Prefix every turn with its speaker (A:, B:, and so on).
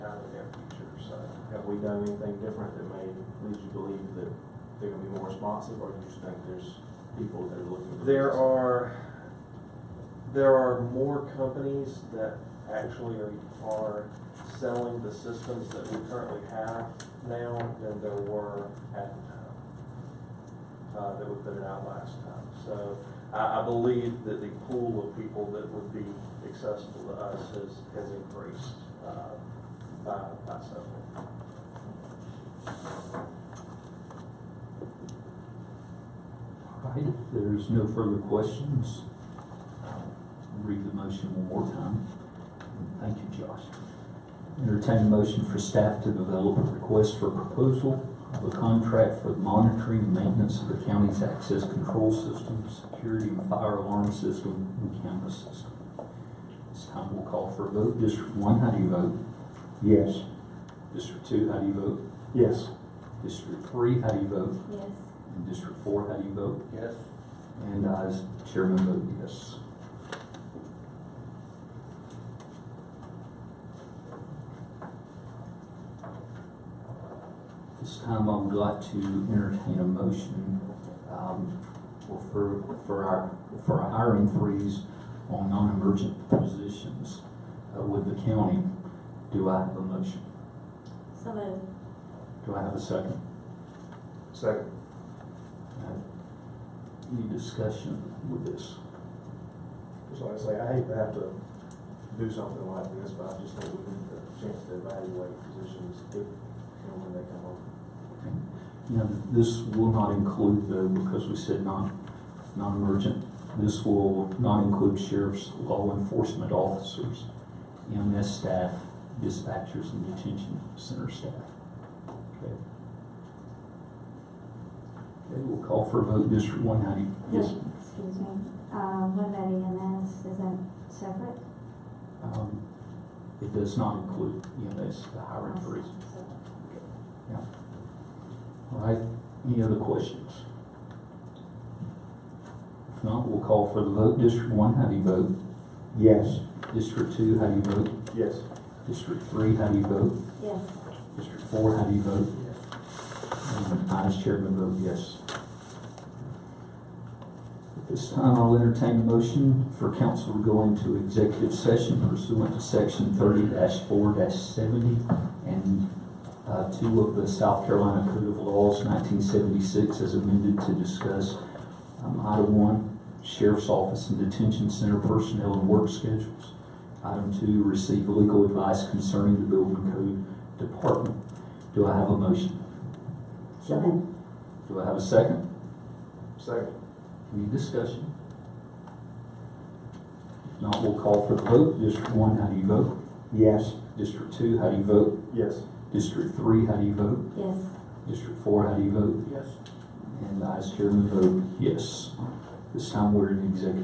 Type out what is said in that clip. A: Have we done anything different that may lead you to believe that they're gonna be more responsive, or do you just think there's people that are looking? for
B: There
A: this?
B: are, there are more companies that actually are, are selling the systems that we currently have now than there were at the time. Uh, that we put it out last time. So I, I believe that the pool of people that would be accessible to us has, has increased, uh, by, by several.
C: All right, if there's no further questions, I'll read the motion one more time. Thank you, Josh. Entertain a motion for staff to develop a request for proposal of a contract for the monitoring and maintenance of the county's access control system, security and fire alarm system, and camera system. This time we'll call for a vote. District one, how do you vote?
D: Yes.
C: District two, how do you vote?
D: Yes.
C: District three, how do you vote?
E: Yes.
C: And District four, how do you vote?
B: Yes.
C: And I, as chairman, vote yes. This time I would like to entertain a motion um, for- for, for our, for a hiring freeze on non-emergent positions uh, with the county. Do I have a motion?
E: So moved.
C: Do I have a second?
A: Second.
C: Any discussion with this?
A: Just like I say, I hate to have to do something like this, but I just think we need the chance to evaluate positions if and when they come up.
C: You know, this will not include though, because we said non, non-emergent, this will not include sheriffs, law enforcement officers, EMS staff, dispatchers, and detention center staff. Okay, Okay, we'll call for a vote, District One, how do you?
E: Yes. Oh, Excuse me, uh, what about EMS, is that separate?
C: Um, It does not include EMS, the hiring freeze. All right, any other questions? If not, we'll call for the vote. District one, how do you vote?
D: Yes.
C: District two, how do you vote?
A: Yes.
C: District three, how do you vote?
E: Yes.
C: District four, how do you vote?
A: Yes.
C: And I as chairman vote yes. At this time, I'll entertain a motion for council to go into executive session pursuant to section thirty four seventy and uh, two of the South Carolina Code of Laws nineteen seventy-six as amended to discuss um, item one, sheriff's office and detention center personnel and work schedules. Item two, receive legal advice concerning the building code department. Do I have a motion?
E: So moved.
C: Do I have a second?
A: Second.
C: Any discussion? If not, we'll call for the vote. District one, how do you vote?
D: Yes.
C: District two, how do you vote?
A: Yes.
C: District three, how do you vote?
E: Yes.
C: District four, how do you vote?
B: Yes.
C: And I as chairman vote yes. This time we're in executive